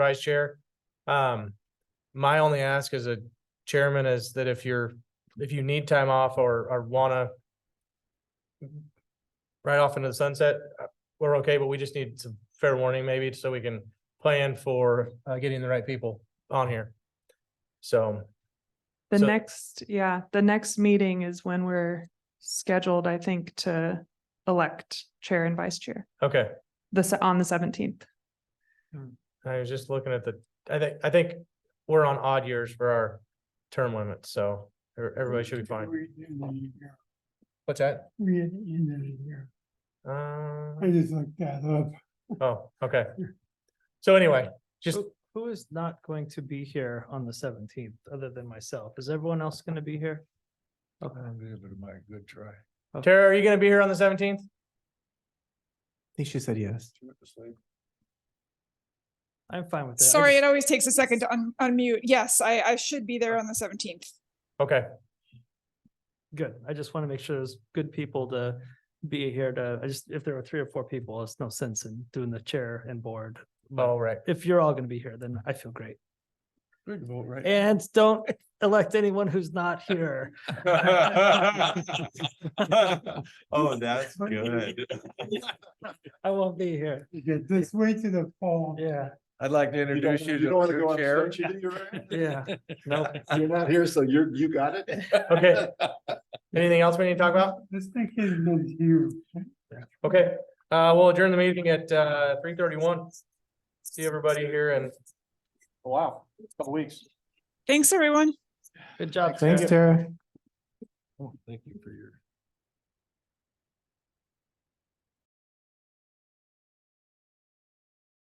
vice chair. Um, my only ask as a chairman is that if you're, if you need time off or, or wanna right off into the sunset, uh, we're okay, but we just need some fair warning maybe so we can plan for, uh, getting the right people on here. So, The So- next, yeah, the next meeting is when we're scheduled, I think, to elect chair and vice chair, okay, the, se- on the seventeenth. I was just looking at the, I think, I think we're on odd years for our term limits, so e- everybody should be fine. We're in the year. What's that? We're in the end of the year. I Uh, just looked that up. oh, okay. So anyway, just Who- Who is not going to be here on the seventeenth, other than myself? Is everyone else gonna be here? I'll be able to make a good try. Tara, are you gonna be here on the seventeenth? think she said yes. I'm fine with that. I Sorry, it just- always takes a second to un- unmute. Yes, I, I should be there on the seventeenth. Okay, Good. I just want to make sure there's good people to be here to, I just, if there are three or four people, it's no sense in doing the chair and board. all right. If you're all gonna be here, then I feel great. Good vote, right? And don't elect anyone who's not here. Oh, that's good. I won't be here. This way to the fall. Yeah, I'd like to introduce you to the chair. yeah. No, You're not here, so you're, you got it? Okay. Anything else we need to talk about? This thing is meant to you. Okay, uh, we'll adjourn the meeting at, uh, three thirty-one. See everybody here and. Wow, couple weeks. Thanks, everyone. good job. Thanks, Sarah. Tara. Thank you for your.